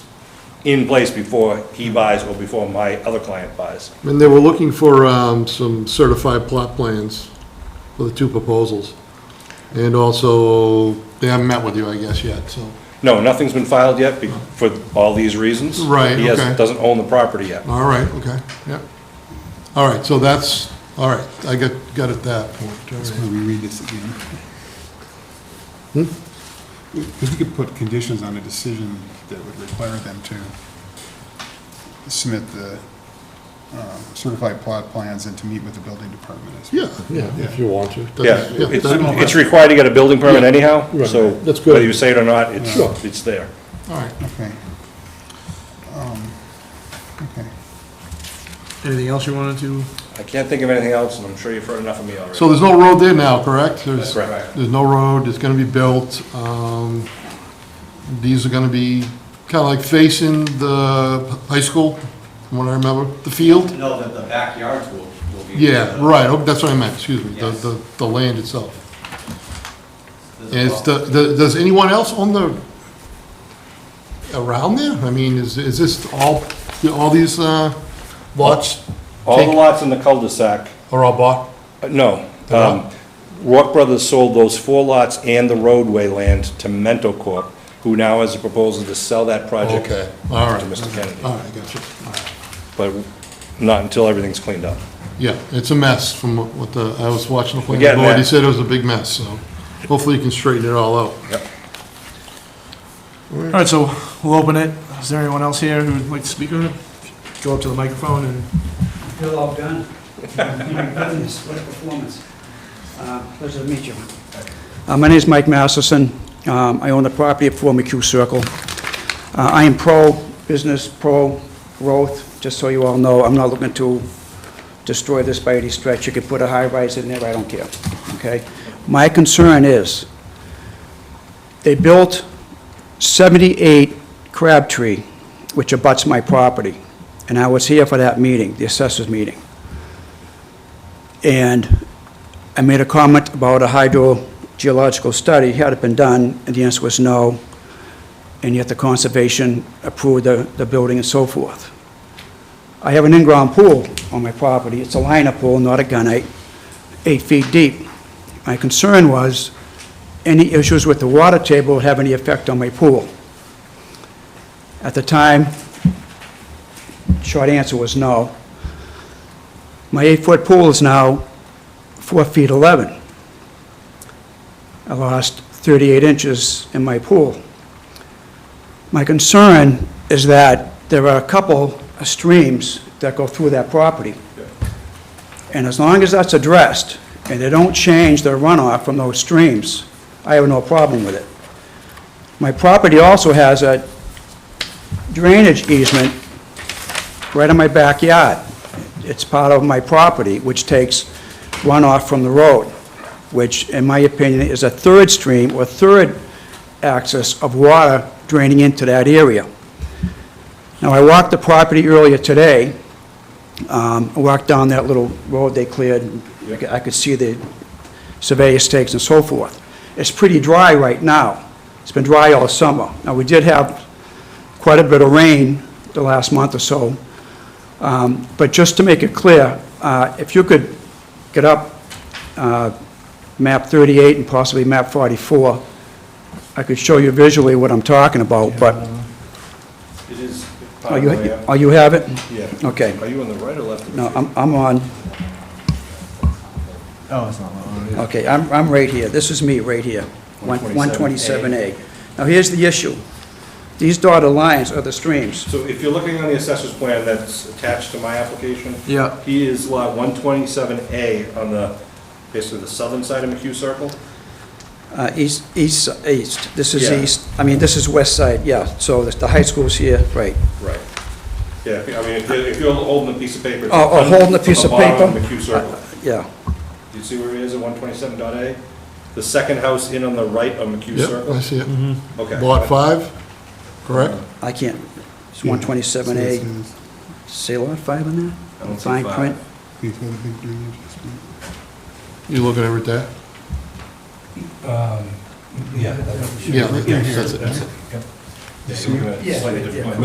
in place before he buys or before my other client buys. And they were looking for um, some certified plot plans for the two proposals. And also, they haven't met with you, I guess, yet, so. No, nothing's been filed yet be- for all these reasons. Right, He hasn't- okay. doesn't own the property yet. All right, okay, yeah. All right, so that's, all right, I got, got at that point. all Let's right. maybe read this again. Because we could put conditions on a decision that would require them to submit the uh, certified plot plans and to meet with the building department as well. Yeah, yeah. if you want to. Yeah, That's- it's, that- it's required to get a building permit anyhow, Right, so that's good. whether you say it or not, Sure. it's, it's there. All right, Okay. Um, Okay. Anything else you wanted to? I can't think of anything else, and I'm sure you've heard enough of me already. so there's no road there now, correct? There's- Correct. There's no road, it's gonna be built. um, These are gonna be kinda like facing the high school, from what I remember, the field? No, the, the backyards will, will be. Yeah, right, oh, that's what I meant, excuse me, the, Yes. the, the land itself. There's a And it's well. the, the- does anyone else own the, around there? I mean, is, is this all, all these uh, lots All the lots in the cul-de-sac, are all bought? uh, no. They're not? um, Rourke Brothers sold those four lots and the roadway land to Mento Corp., who now has a proposal to sell that project Okay, all right. to Mr. Kennedy, All right, gotcha. All right. but not until everything's cleaned up. Yeah, it's a mess from what- what the, I was watching the getting planning board, he there. said it was a big mess, so hopefully you can straighten it all out. All right, so we'll open it. Is there anyone else here who would like to speak on it? Go up to the microphone and Bill, all done. Oh, My goodness, what a performance. Uh, Pleasure to meet you. Uh, My name is Mike Masterson. Um, I own the property at 4 McHugh Circle. Uh, I am pro-business, pro-growth, just so you all know. I'm not looking to destroy this by any stretch. You could put a high-rise in there, I don't care, okay? My concern is, they built 78 Crabtree, which abuts my property, and I was here for that meeting, the assessors meeting. And I made a comment about a hydrogeological study, had it been done, and the answer was no, and yet the conservation approved the, the building and so forth. I have an in-ground pool on my property, it's a liner pool, not a gunite, eight feet deep. My concern was, any issues with the water table would have any effect on my pool. At the time, short answer was no. My eight-foot pool is now four feet 11. I lost 38 inches in my pool. My concern is that there are a couple of streams that go through that property. And as long as that's addressed, and they don't change their runoff from those streams, I have no problem with it. My property also has a drainage easement right in my backyard. It's part of my property, which takes runoff from the road, which, in my opinion, is a third stream or third axis of water draining into that area. Now, I walked the property earlier today. Um, I walked down that little road they cleared. I could- I could see the surveyor stakes and so forth. It's pretty dry right now. It's been dry all summer. Now, we did have quite a bit of rain the last month or so. Um, But just to make it clear, uh, if you could get up uh, map 38 and possibly map 44, I could show you visually what I'm talking about, but, It is. oh, you, oh, you have it? Yeah. Okay. Are you on the right or left? of the No, tree? I'm, I'm on, Oh, it's not long. okay, I'm, I'm right here, this is me right here, One- 127A. Now, here's the issue. These dotted lines are the streams. So if you're looking on the assessor's plan that's attached to my application. Yeah. He is lot one twenty-seven A on the, basically the southern side of McHugh Circle. Uh, East, east, east, this is Yeah. east, I mean, this is west side, yeah, so the the high school's here, right. Right. Yeah, if you- I mean, if you're, if you're holding a piece of paper. it's Oh, oh, on- holding a it's on piece the of bottom of paper? McHugh Circle. Yeah, Do you see where it is at one twenty-seven dot A? The second house in on the right of McHugh Yep, Circle? I see it. Okay. Lot five, correct? I can't, it's 127A, say lot 5 on that? I don't see Fine five. print. You looking over at that? Yeah. Um, Yeah, that's Yeah, it. you're looking at a slightly different plan.